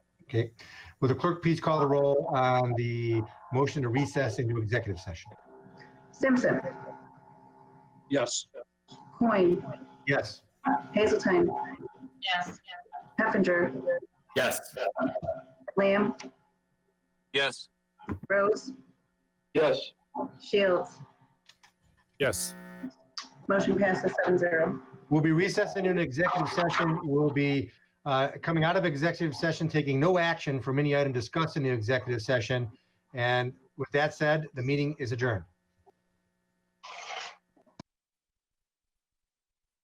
Okay. Will the clerk please call the roll on the motion to recess into executive session? Simpson, Yes. Coin, Yes. Hazelton, Yes. Heffinger, Yes. Lamb, Yes. Rose, Yes. Shields. Yes. Motion passes seven zero. We'll be recessing into an executive session. We'll be uh, coming out of executive session, taking no action from any item discussed in the executive session. And with that said, the meeting is adjourned.